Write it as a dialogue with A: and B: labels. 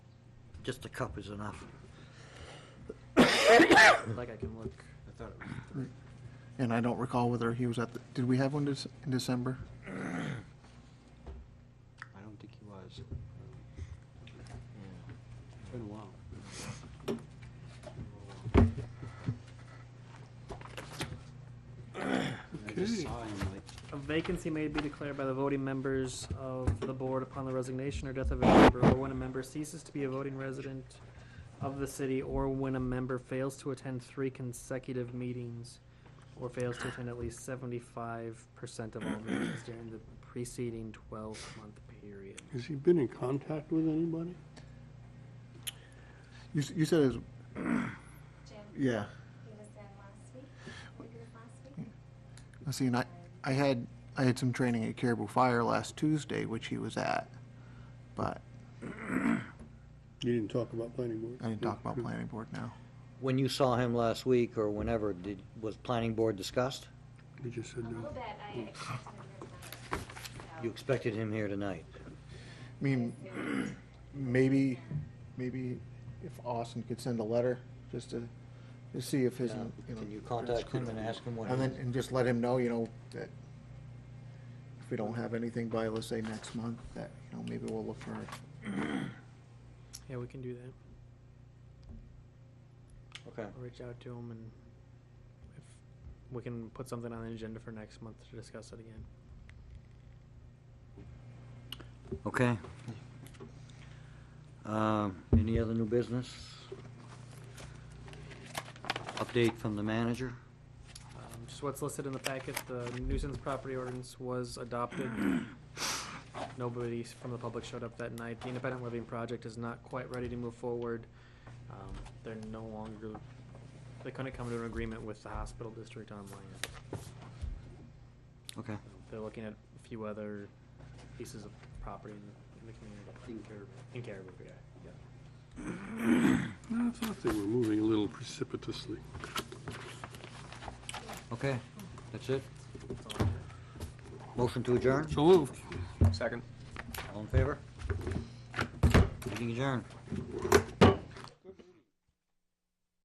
A: just a cup is enough. Like I can look, I thought it was
B: And I don't recall whether he was at, the did we have one this- in December?
C: I don't think he was. It's been a while. I just
B: Okay.
C: saw him like,
D: A vacancy may be declared by the voting members of the board upon the resignation or death of a member, or when a member ceases to be a voting resident of the city, or when a member fails to attend three consecutive meetings, or fails to attend at least seventy-five percent of all meetings during the preceding twelve-month period.
E: Has he been in contact with anybody?
B: You, s- you said it was,
F: Jim, he
B: yeah.
F: was in last week, maybe it was last week.
B: I see, and I, I had, I had some training at Caribou Fire last Tuesday, which he was at, but
E: You didn't talk about planning board?
B: I didn't talk about planning board now.
A: When you saw him last week or whenever, did, was planning board discussed?
E: You just said
F: A little
E: no.
F: bit, I expected him to not.
A: You expected him here tonight.
B: I mean, maybe, maybe if Austin could send a letter, just to, to see if his,
A: Uh,
B: you know.
A: Can you contact him and ask him what?
B: And then, and just let him know, you know, that if we don't have anything by, let's say, next month, that, you know, maybe we'll look for
D: Yeah, we can do that.
A: Okay,
D: I'll reach out to him and if, we can put something on the agenda for next month to discuss it again.
A: okay. Um, Any other new business? Update from the manager?
D: Um, Just what's listed in the packet, the nuisance property ordinance was adopted. Nobody s- from the public showed up that night. The independent living project is not quite ready to move forward. Um, They're no longer, they couldn't come to an agreement with the hospital district on land.
A: Okay,
D: They're looking at a few other pieces of property in the- in the community. In Caribou. In Caribou, yeah, yeah.
E: I thought they were moving a little precipitously.
A: okay, that's it? Motion to adjourn?
E: So moved.
A: All in favor? Meeting adjourned.